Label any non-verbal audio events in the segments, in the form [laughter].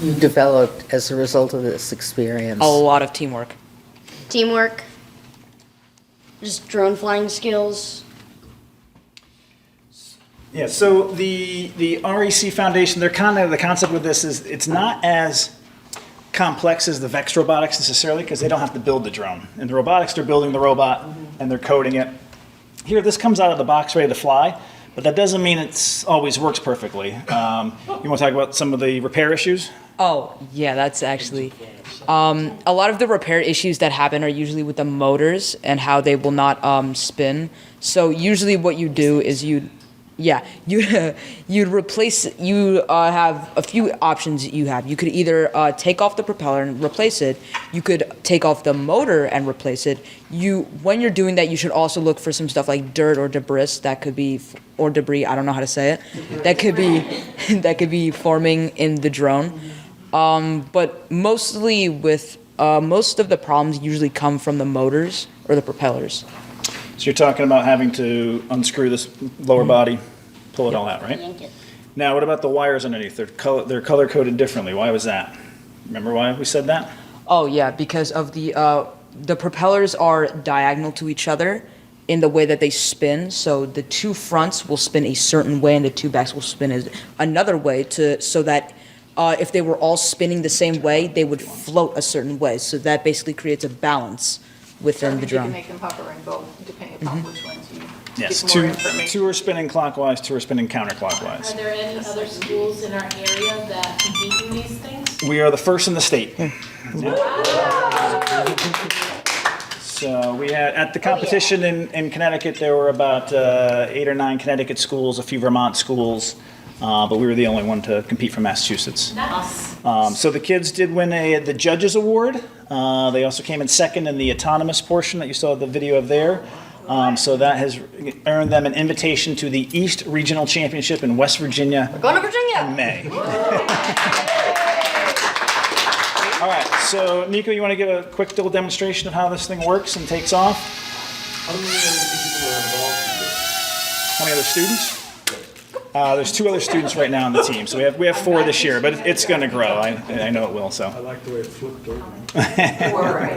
you developed as a result of this experience? A lot of teamwork. Teamwork, just drone flying skills. Yeah, so the, the REC Foundation, they're kind of, the concept with this is, it's not as complex as the VEX robotics necessarily, because they don't have to build the drone. In the robotics, they're building the robot and they're coding it. Here, this comes out of the box ready to fly, but that doesn't mean it's always works perfectly. Um, You want to talk about some of the repair issues? Oh, yeah, that's actually. Um, a lot of the repair issues that happen are usually with the motors and how they will not um, spin. So usually, what you do is you, yeah, [laughs] you you'd replace. You uh, have a few options that you have. You could either uh, take off the propeller and replace it. You could take off the motor and replace it. You when you're doing that, you should also look for some stuff like dirt or debris that could be f- or debris. I don't know how to say it. That could be [laughs] that could be forming in the drone but mostly with uh, most of the problems usually come from the motors or the propellers. So you're talking about having to unscrew this lower body, pull it all out, right? Yank it. Now, what about the wires underneath? They're color, they're color coded differently. Why was that? Remember why we said that? Oh yeah, because of the uh, the propellers are diagonal to each other in the way that they spin. So the two fronts will spin a certain way, and the two backs will spin as- another way to so that. Uh, if they were all spinning the same way, they would float a certain way. So that basically creates a balance within the You can drum. Mm-hmm. make them hover and go depending upon which ones you Yes, get more two, information. two are spinning clockwise, two are spinning Are counterclockwise. there any other schools in our area that compete in these things? We are the first in the state. So we had, at the competition in, in Connecticut, there were about uh, eight or nine Connecticut schools, a few Vermont schools, uh, but we were the only one to compete from Massachusetts. Nice. Um, so the kids did win a, the judges award. Uh, they also came in second in the autonomous portion that you saw the video of there. Um, so that has earned them an invitation to the East Regional Championship in West Virginia Going to Virginia! in May. [laughs] All right, so Nico, you want to give a quick little demonstration of how this thing works and takes off? How many other people are involved in this? How many other students? Uh, there's two other students right now on the team, so we have we have four this year, but it's going to grow. I, I know it will. I So, like the way it flipped over.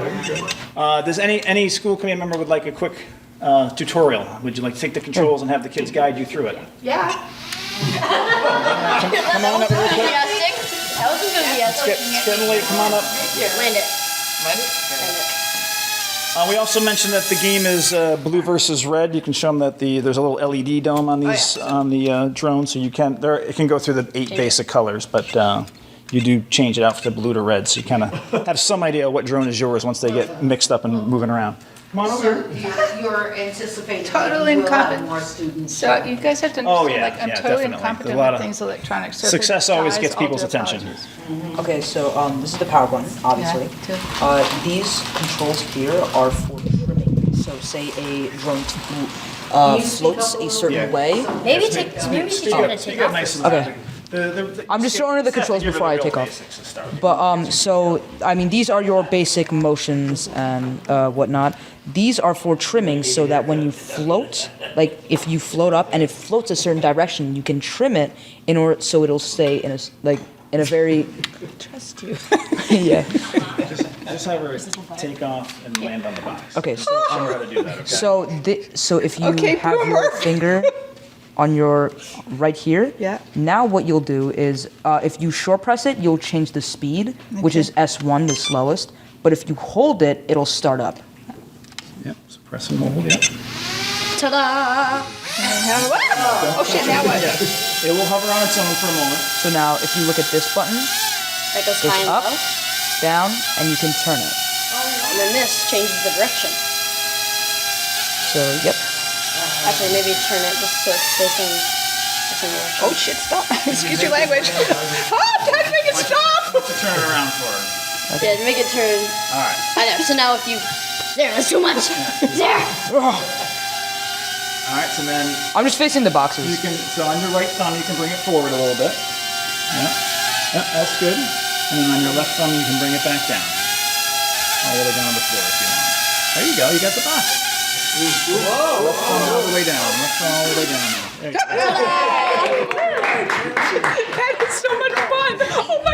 uh, does any any school committee member would like a quick uh, tutorial? Would you like to take the controls and have the kids guide you through it? Yeah. Come on up real quick. Enthusiastic. That was It's, enthusiastic. get, it's getting late. Come on up. Land it. Uh, we also mentioned that the game is uh, blue versus red. You can show them that the there's a little LED dome on these on the uh, drone, so you can there it can go through the eight basic colors, but uh, you do change it out from blue to red, so you [laughs] kind of have some idea what drone is yours once they get mixed up and moving around. Come on over. So you're- you're anticipating Total that you will have incompetence. more students. So you guys have to Oh, understand, yeah, like, I'm yeah, totally definitely. incompetent A lot with of- things electronic. So if it Success always dies, gets I'll do people's attention. apologies. [laughs] Okay, so um, this is the power button, obviously. Yeah, two. Uh, these controls here are for trimming. So, say a drone t- uh, floats a certain Yeah. way. Maybe take, maybe she should have taken off. nice Okay. I'm just showing her the controls before I take off. But um, so I mean, these are your basic motions and uh, whatnot. These are for trimming, so that when you float, like if you float up and it floats a certain direction, you can trim it in order so it'll stay in a s- like in a very Trust you. [laughs] yeah. Just have her take off and land on the box. Okay, so Show her how to do that, okay? So, thi- so if you Okay, have your boomer. [laughs] finger on your right here, Yeah. Now what you'll do is, uh, if you short press it, you'll change the speed, which is S1, the slowest. But if you hold it, it'll start up. Yep, so press and hold, yep. Ta-da! Oh shit, now what? It will hover on its own for a moment. So now, if you look at this button, That goes it's high and up, low. down, and you can turn it. And then this changes the direction. So, yep. Actually, maybe turn it just so it's facing the same direction. Oh shit, stop. Excuse your language. Oh, time to make it stop. To turn it around for her. Yeah, make it turn. All right. I know. So now if you, there, that's too much. [laughs] There. All right, so then I'm just facing the you boxes. can, so on your right thumb, you can bring it forward a little bit. Yeah, yeah that's good. And then on your left thumb, you can bring it back down. All the way down to the floor if you want. There you go, you got the box. Whoa! Left thumb all the way down, left thumb all the way down. There you go. Oh